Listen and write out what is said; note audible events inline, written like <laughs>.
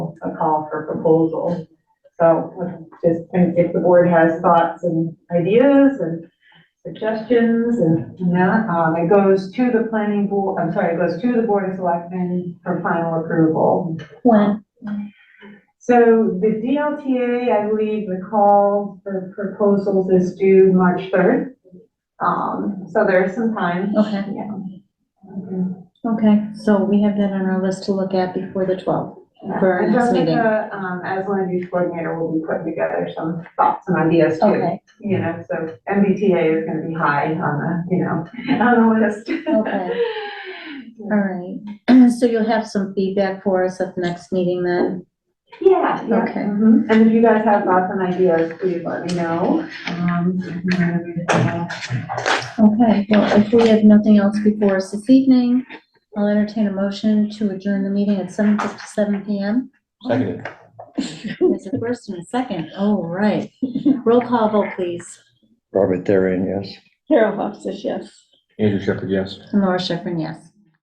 call for proposal. So I'm just, and if the board has thoughts and ideas and suggestions and, yeah, um, it goes to the planning board, I'm sorry, it goes to the board of selectmen for final approval. When? So the DLTA, I believe the call for proposals is due March third. Um, so there's some time. Okay, Yeah. okay, so we have that on our list to look at before the twelfth. For our And next meeting. Jessica, um, as land use coordinator, will be putting together some thoughts and ideas too. Okay, You know, so MBTA is gonna be high on the, you know, <laughs> on the list. Okay. all right. <clears throat> So you'll have some feedback for us at the next meeting then? <laughs> Yeah, yeah. Okay. mhm. And if you guys have thoughts and ideas, please let me know. Um, I'm gonna- Okay, well, if we have nothing else before us this evening, I'll entertain a motion to adjourn the meeting at seven fifty-seven PM. Seconded. There's a first and a second, all <laughs> right. Roll call vote, please. Robert Therin, yes. Carol Hofstas, yes. Andrew Shepherd, yes. Laura Schifrin, yes.